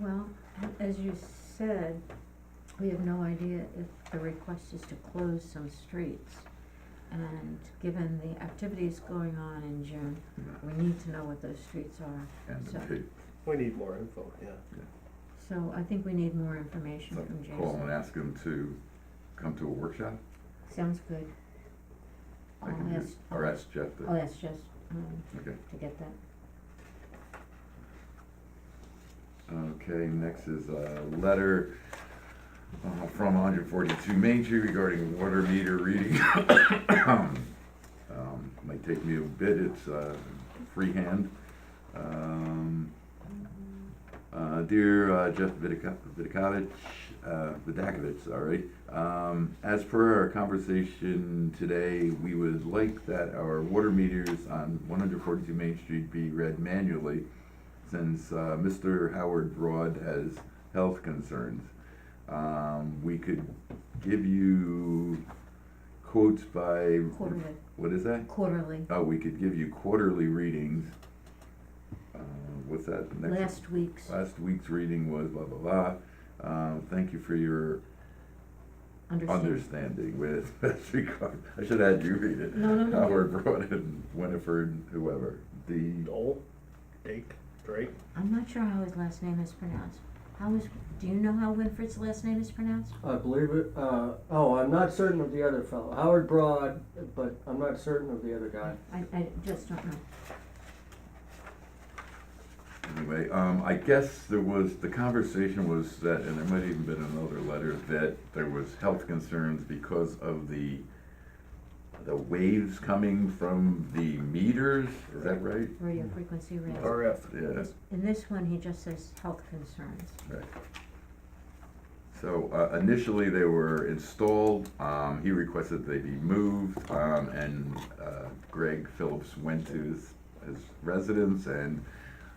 Well, as you said, we have no idea if the request is to close some streets. And given the activities going on in June, we need to know what those streets are. and the So- chief, We need more info, yeah. So I think we need more information so from call and Jason. ask him to come to a workshop? Sounds good. I can I'll do- ask, Or ask Jeff, to- I'll ask Jess, um, okay. to get that. Okay, next is a letter uh, from 142 Main Street regarding water meter reading. Um, Might take me a bit, it's uh, freehand. Um, uh, Dear uh, Jeff Vidakovich, Vidakovich, sorry. um, As per our conversation today, we would like that our water meters on 142 Main Street be read manually since uh, Mr. Howard Broad has health concerns. Um, we could give you quotes by Quarterly, what is that? quarterly. Oh, we could give you quarterly readings. Uh, what's that? Next Last week's, last week's reading was blah blah blah. Um, thank you for your understand. understanding with best regard. I should add you read it. No, no, no. Howard Broad and Winifred, whoever. The Dole, Dake, Drake, I'm not sure how his last name is pronounced. How is, do you know how Winfred's last name is pronounced? I believe it. Uh, oh, I'm not certain of the other fellow, Howard Broad, but I'm not certain of the other guy. I, I just don't know. Anyway, um, I guess there was, the conversation was that, and there might even been another letter, that there was health concerns because of the, the waves coming from the meters, is that right? Hmm. Radio frequency range. RF. Yeah, In this one, he just says health concerns. so, uh, initially they were installed, um, he requested they be moved, um, and, uh, Greg Phillips went to his, his residence and,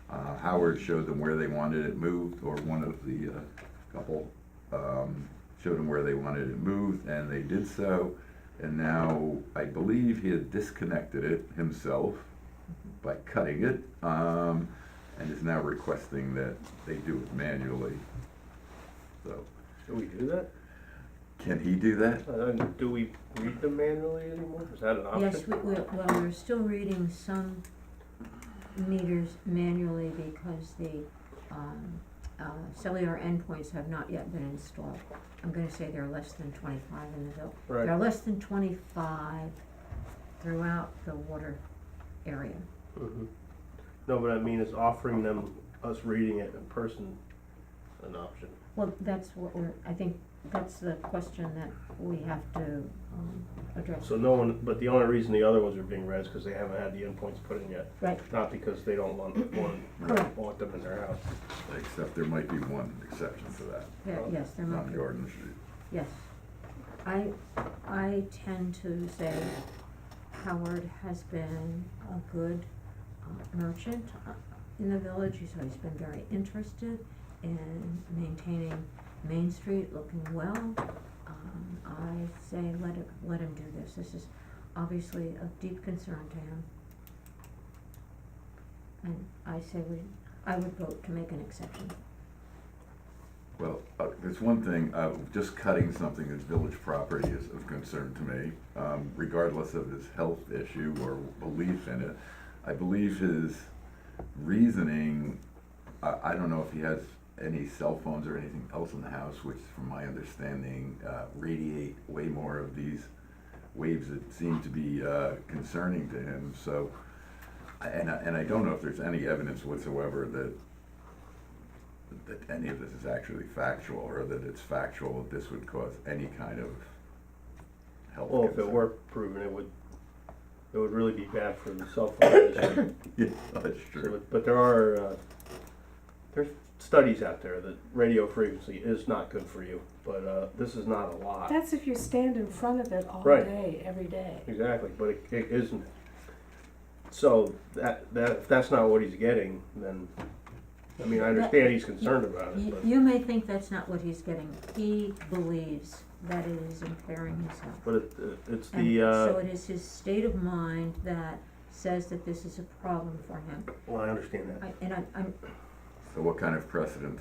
uh, Howard showed them where they wanted it moved, or one of the, uh, couple, um, showed them where they wanted it moved, and they did so. And now, I believe he had disconnected it himself by cutting it, um, and is now requesting that they do it manually. So, Do we do that? Uh, can he do that? And then do we read them manually anymore? Is that an option? Yes, we, we, well, we're still reading some meters manually because the, um, uh, cellular endpoints have not yet been installed. I'm gonna say there are less than twenty-five in the bill. There are Right. less than twenty-five throughout the water area. Mhm. No, but I mean, is offering them, us reading it in person, an option? Well, that's what we're, I think that's the question that we have to, um, address. So no one, but the only reason the other ones are being read is because they haven't had the endpoints put in yet. Right. Not because they don't want, want, Correct. want them in their house. Except there might be one exception to that, Yeah, yes, there might on be. Jordan Street. Yes. I, I tend to say Howard has been a good uh, merchant uh, in the village, so he's been very interested in maintaining Main Street looking well. Um, I say let it, let him do this, this is obviously of deep concern to him. And I say we, I would vote to make an exception. Well, uh, there's one thing, uh, just cutting something that's village property is of concern to me, um, regardless of his health issue or belief in it. I believe his reasoning, I, I don't know if he has any cell phones or anything else in the house, which from my understanding, uh, radiate way more of these waves that seem to be, uh, concerning to him, so. I- And I, and I don't know if there's any evidence whatsoever that that any of this is actually factual, or that it's factual that this would cause any kind of health Well, if it concern. were proven, it would, it would really be bad for the cell phone industry. Yeah, that's true. But, but there are uh, there's studies out there that radio frequency is not good for you, but uh, this is not a lot. That's if you stand in front of it all Right. day, every day. exactly, but it, it isn't. So that that if that's not what he's getting, then I mean I understand he's concerned about it, You, but, you may think that's not what he's getting. He believes that it is impairing his health. but it, it, it's And the uh, Um, so it is his state of mind that says that this is a problem for him. well I understand that. I, and I, I'm, So what kind of precedent